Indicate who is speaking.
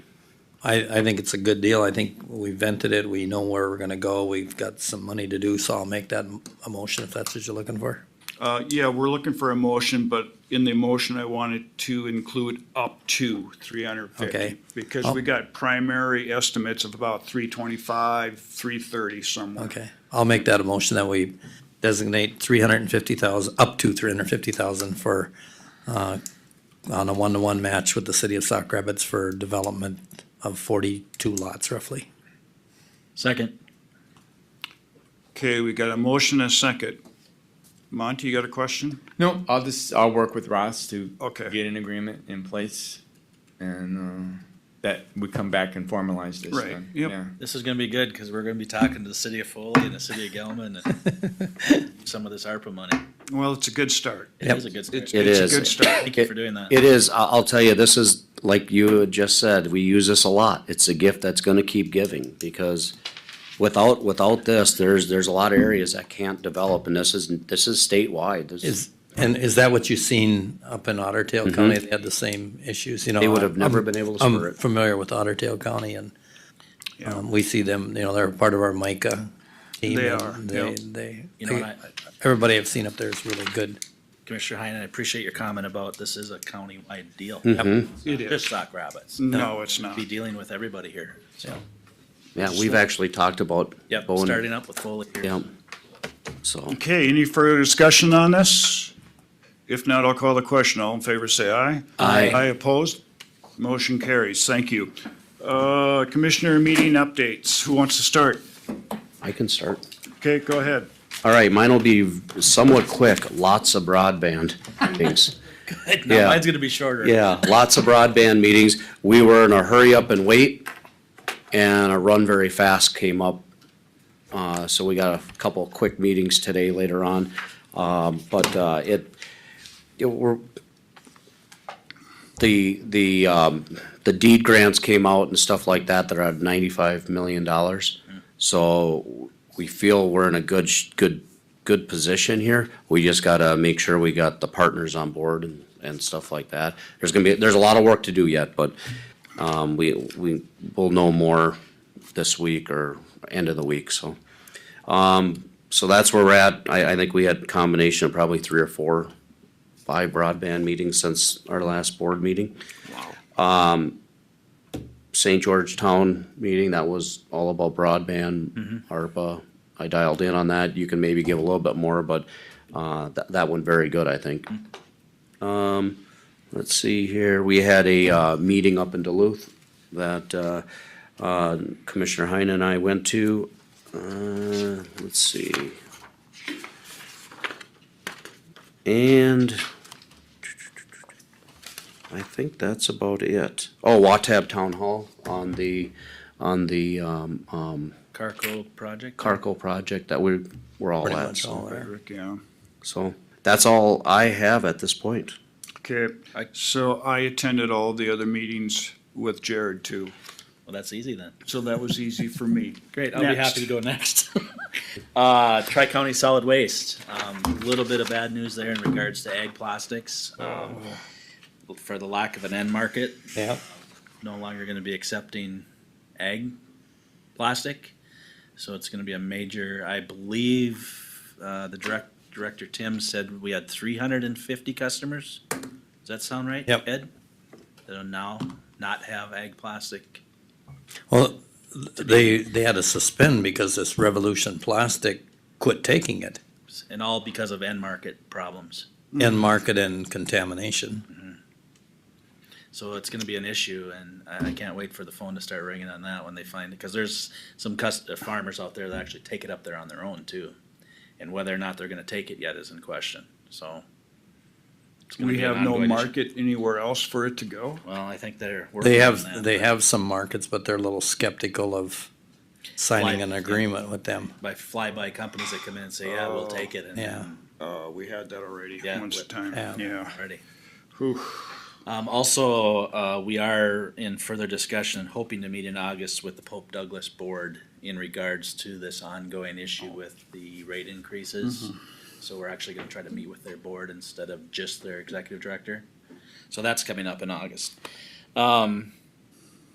Speaker 1: I, I think it's a good deal. I think we vented it. We know where we're gonna go. We've got some money to do, so I'll make that m- a motion if that's what you're looking for.
Speaker 2: Uh, yeah, we're looking for a motion, but in the motion, I wanted to include up to three hundred
Speaker 1: Okay.
Speaker 2: fifty. Because we got primary estimates of about three twenty-five, three thirty somewhere.
Speaker 1: Okay, I'll make that a motion that we designate three hundred and fifty thousand, up to three hundred and fifty thousand for, uh, on a one-to-one match with the city of Sock Rapids for development of forty-two lots roughly.
Speaker 3: Second.
Speaker 2: Okay, we got a motion and a second. Monty, you got a question?
Speaker 4: No, I'll just, I'll work with Ross to
Speaker 2: Okay.
Speaker 4: get an agreement in place and, uh, that we come back and formalize this
Speaker 2: Right,
Speaker 4: then.
Speaker 2: yep.
Speaker 4: Yeah.
Speaker 3: This is gonna be good, cause we're gonna be talking to the city of Foley and the city of Gelman and some of this ARPA money.
Speaker 2: Well, it's a good start.
Speaker 3: It is a good start.
Speaker 2: It's,
Speaker 5: It
Speaker 2: it's a
Speaker 5: is.
Speaker 2: good start.
Speaker 3: Thank you for doing that.
Speaker 5: It is, I- I'll tell you, this is, like you had just said, we use this a lot. It's a gift that's gonna keep giving, because without, without this, there's, there's a lot of areas that can't develop, and this is, this is statewide. This
Speaker 1: Is, and is that what you've seen up in Otter Tail County? They had the same issues, you know?
Speaker 5: Mm-hmm. They would have
Speaker 1: I'm-
Speaker 5: never been able to spur
Speaker 1: I'm
Speaker 5: it.
Speaker 1: familiar with Otter Tail County and,
Speaker 2: Yeah.
Speaker 1: um, we see them, you know, they're part of our MICA team.
Speaker 2: They
Speaker 1: and
Speaker 2: are,
Speaker 1: They,
Speaker 2: yeah.
Speaker 1: they,
Speaker 3: You know, and
Speaker 1: they-
Speaker 3: I,
Speaker 1: everybody I've seen up there is really good.
Speaker 3: Commissioner Heinen, I appreciate your comment about this is a county-wide deal.
Speaker 5: Mm-hmm.
Speaker 2: It
Speaker 3: Just
Speaker 2: is.
Speaker 3: Sock Rapids.
Speaker 2: No, it's not.
Speaker 3: Be dealing with everybody here, so,
Speaker 5: Yeah, we've actually talked about.
Speaker 3: yep,
Speaker 5: Bowen.
Speaker 3: starting up with Foley here.
Speaker 5: Yep. So,
Speaker 2: Okay, any further discussion on this? If not, I'll call the question. All in favor, say aye.
Speaker 5: Aye.
Speaker 2: Aye opposed? Motion carries. Thank you. Uh, Commissioner meeting updates. Who wants to start?
Speaker 5: I can start.
Speaker 2: Okay, go ahead.
Speaker 5: All right, mine will be somewhat quick, lots of broadband things.
Speaker 3: Now,
Speaker 5: Yeah.
Speaker 3: mine's gonna be shorter.
Speaker 5: Yeah, lots of broadband meetings. We were in a hurry up and wait, and a run very fast came up. Uh, so we got a couple of quick meetings today later on, um, but, uh, it, it, we're, the, the, um, the deed grants came out and stuff like that, that are at ninety-five million dollars. So we feel we're in a good, sh- good, good position here. We just gotta make sure we got the partners on board and, and stuff like that. There's gonna be, there's a lot of work to do yet, but, um, we, we will know more this week or end of the week, so. Um, so that's where we're at. I, I think we had a combination of probably three or four five broadband meetings since our last board meeting. Um, St. Georgetown meeting, that was all about broadband, ARPA. I dialed in on that. You can maybe give a little bit more, but, uh, that, that went very good, I think. Um, let's see here, we had a, uh, meeting up in Duluth that, uh, uh, Commissioner Heine and I went to. Uh, let's see. And I think that's about it. Oh, Watab Town Hall on the, on the, um, um,
Speaker 3: Carco project.
Speaker 5: Carco project that we're, we're all
Speaker 1: Pretty
Speaker 5: at.
Speaker 1: much
Speaker 5: so-
Speaker 1: all there.
Speaker 2: Rick, yeah.
Speaker 5: So that's all I have at this point.
Speaker 2: Okay,
Speaker 3: I-
Speaker 2: so I attended all the other meetings with Jared too,
Speaker 3: Well, that's easy then.
Speaker 2: so that was easy for me.
Speaker 3: Great, I'll be
Speaker 2: Next.
Speaker 3: happy to go next. Uh, Tri-County Solid Waste, um, a little bit of bad news there in regards to ag plastics. um, For the lack of an end market,
Speaker 1: Yeah.
Speaker 3: no longer gonna be accepting ag plastic. So it's gonna be a major, I believe, uh, the direct, Director Tim said we had three hundred and fifty customers. Does that sound right?
Speaker 1: Yep.
Speaker 3: Ed? That'll now not have ag plastic.
Speaker 1: Well, they, they had to suspend because this Revolution Plastic quit taking it
Speaker 3: and all because of end market problems.
Speaker 2: Mm-hmm.
Speaker 1: and market and contamination.
Speaker 3: So it's gonna be an issue, and I, I can't wait for the phone to start ringing on that when they find it, because there's some cus- uh, farmers out there that actually take it up there on their own too. And whether or not they're gonna take it yet is in question, so. it's gonna
Speaker 2: We
Speaker 3: be an
Speaker 2: have no
Speaker 3: ongoing issue.
Speaker 2: market anywhere else for it to go.
Speaker 3: Well, I think they're.
Speaker 1: They
Speaker 3: working on that,
Speaker 1: have, they
Speaker 3: but
Speaker 1: have some markets, but they're a little skeptical of signing an
Speaker 3: Like-
Speaker 1: agreement with them.
Speaker 3: By fly-by companies that come in and say, yeah,
Speaker 2: Oh,
Speaker 3: we'll take it, and.
Speaker 1: Yeah.
Speaker 2: Uh, we had that already
Speaker 3: Yeah,
Speaker 2: once a
Speaker 3: what-
Speaker 2: time,
Speaker 1: Yeah.
Speaker 2: yeah.
Speaker 3: Already.
Speaker 2: Whew.
Speaker 3: Um, also, uh, we are in further discussion, hoping to meet in August with the Pope Douglas Board in regards to this ongoing
Speaker 2: Oh.
Speaker 3: issue with the rate
Speaker 2: Mm-hmm.
Speaker 3: increases. So we're actually gonna try to meet with their board instead of just their executive director. So that's coming up in August. Um,